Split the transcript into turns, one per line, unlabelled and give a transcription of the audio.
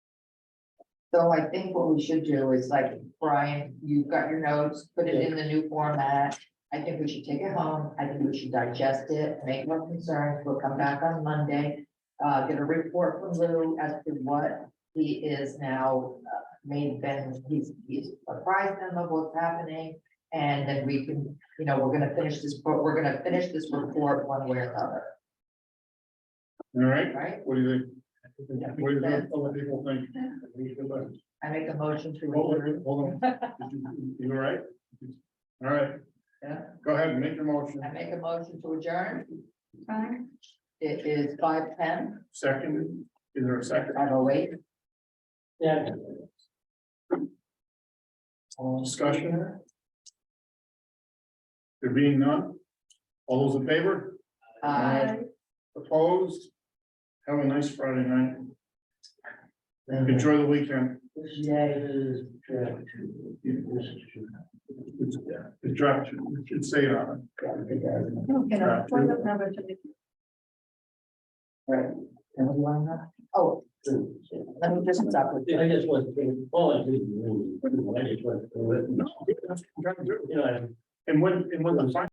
So I think what we should do is like, Brian, you've got your notes, put it in the new format. I think we should take it home. I think we should digest it, make more concerns. We'll come back on Monday. Uh, get a report from Lou as to what he is now, uh, made been, he's, he's apprised them of what's happening. And then we can, you know, we're gonna finish this, but we're gonna finish this report one way or another,
All right,
right?
what do you think?
Yeah.
What do you think other people think?
I make a motion to.
Hold
adjourn.
on, hold on. Did you- You all right? All right,
Yeah.
go ahead and make your motion.
I make a motion to adjourn.
Fine.
It is five ten,
Second, is there a second?
five oh eight.
Yeah.
All discussion? There being none? All those in favor?
Uh,
Opposed? Have a nice Friday night. Enjoy the weekend. It's it's dropped, it should say it on it.
Okay, now, phone number to the-
oh, let me just stop with,
I just want to, all I did, was- I just want to,
No, that's what I'm trying to do.
you know, I-
And when, and when the.